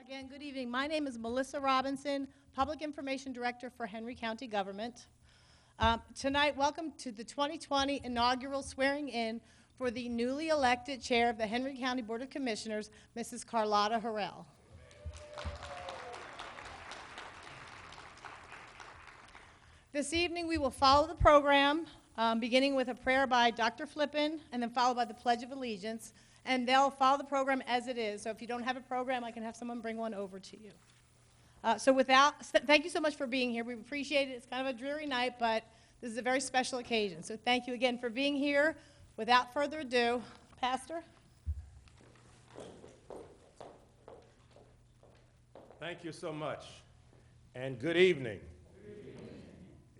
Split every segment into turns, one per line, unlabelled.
Again, good evening. My name is Melissa Robinson, Public Information Director for Henry County Government. Um, Tonight, welcome to the 2020 inaugural swearing-in for the newly elected Chair of the Henry County Board of Commissioners, Mrs. Carlotta Harrell. This evening, we will follow the program, um, beginning with a prayer by Dr. Flippin, and then followed by the Pledge of Allegiance. And they'll follow the program as it is. So if you don't have a program, I can have someone bring one over to you. Uh, so without, s- thank you so much for being here. We appreciate it. It's kind of a dreary night, but this is a very special occasion. So thank you again for being here. Without further ado, Pastor.
Thank you so much, and good evening.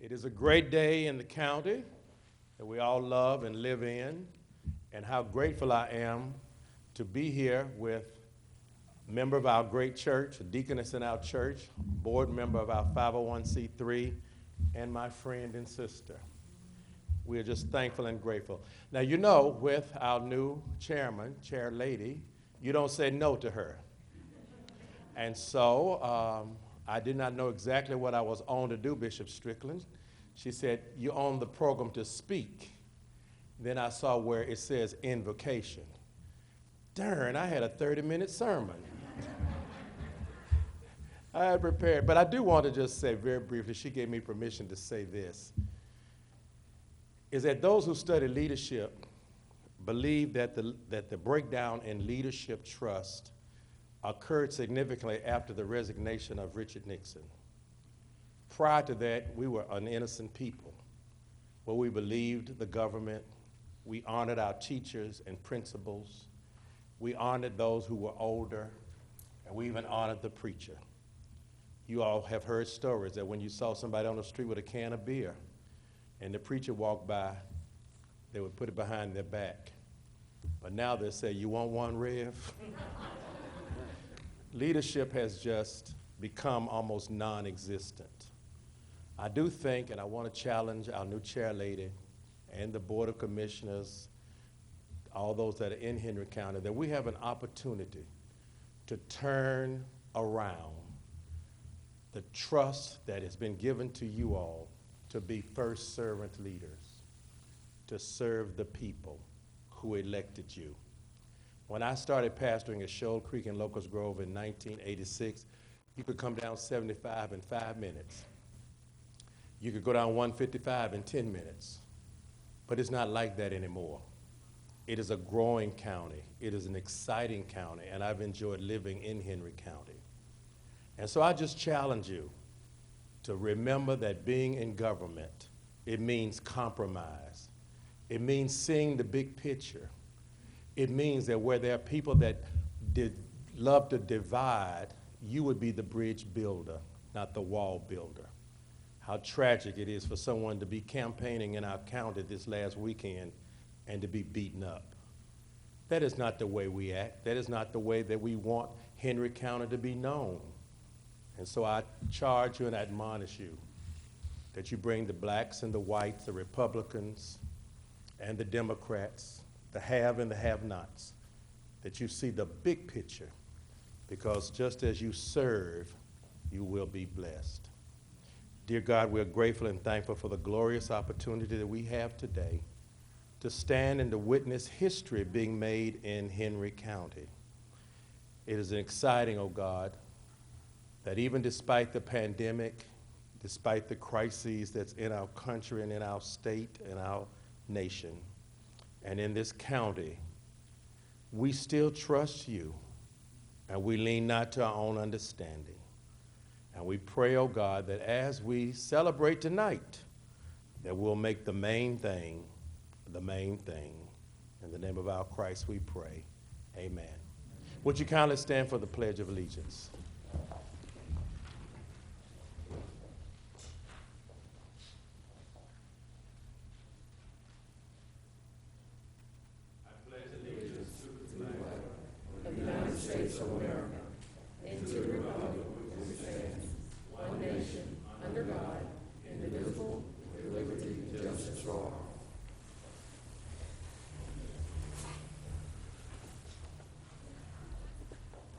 It is a great day in the county that we all love and live in, and how grateful I am to be here with a member of our great church, a deaconess in our church, board member of our 501c3, and my friend and sister. We are just thankful and grateful. Now, you know, with our new chairman, chair lady, you don't say no to her. And so um, I did not know exactly what I was on to do, Bishop Strickland. She said, You're on the program to speak. Then I saw where it says invocation. Darn, I had a 30 minute sermon. I had prepared, but I do want to just say very briefly, she gave me permission to say this is that those who study leadership believe that the, that the breakdown in leadership trust occurred significantly after the resignation of Richard Nixon. Prior to that, we were an innocent people where we believed the government, we honored our teachers and principals, we honored those who were older, and we even honored the preacher. You all have heard stories that when you saw somebody on the street with a can of beer and the preacher walked by, they would put it behind their back. But now they say, You want one, Rev? Leadership has just become almost non existent. I do think, and I want to challenge our new chair lady and the Board of Commissioners, all those that are in Henry County, that we have an opportunity to turn around the trust that has been given to you all to be first servant leaders, to serve the people who elected you. When I started pastoring at Shoal Creek in Locust Grove in 1986, you could come down 75 in five minutes. You could go down 155 in 10 minutes. But it's not like that anymore. It is a growing county. It is an exciting county, and I've enjoyed living in Henry County. And so I just challenge you to remember that being in government, it means compromise. It means seeing the big picture. It means that where there are people that did, love to divide, you would be the bridge builder, not the wall builder. How tragic it is for someone to be campaigning in our county this last weekend and to be beaten up. That is not the way we act. That is not the way that we want Henry County to be known. And so I charge you and admonish you that you bring the blacks and the whites, the Republicans and the Democrats, the have and the have nots, that you see the big picture, because just as you serve, you will be blessed. Dear God, we are grateful and thankful for the glorious opportunity that we have today to stand and to witness history being made in Henry County. It is exciting, O God, that even despite the pandemic, despite the crises that's in our country and in our state and our nation and in this county, we still trust you and we lean not to our own understanding. And we pray, oh God, that as we celebrate tonight, that we'll make the main thing the main thing. In the name of our Christ we pray. Amen. Would you kindly stand for the Pledge of Allegiance?
under God, indivisible, with liberty and justice for all.